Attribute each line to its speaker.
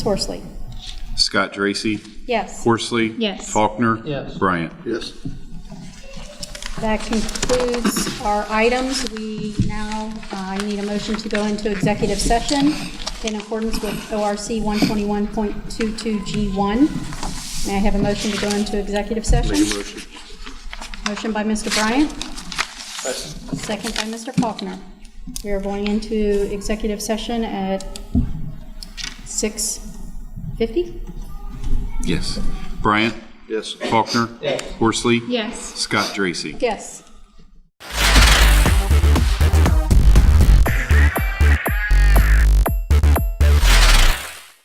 Speaker 1: Horsley.
Speaker 2: Scott Dracy,
Speaker 1: Yes.
Speaker 2: Horsley.
Speaker 3: Yes.
Speaker 2: Faulkner.
Speaker 4: Yes.
Speaker 2: Bryant.
Speaker 5: Yes.
Speaker 1: That concludes our items. We now uh, need a motion to go into executive session in accordance with ORC 121.22G1. May I have a motion to go into executive session?
Speaker 5: Make a motion.
Speaker 1: Motion by Mr. Bryant. Second by Mr. Faulkner. We are going into executive session at 6:50?
Speaker 2: Yes. Bryant.
Speaker 5: Yes.
Speaker 2: Faulkner. Horsley.
Speaker 3: Yes.
Speaker 2: Scott Dracy.
Speaker 1: Yes.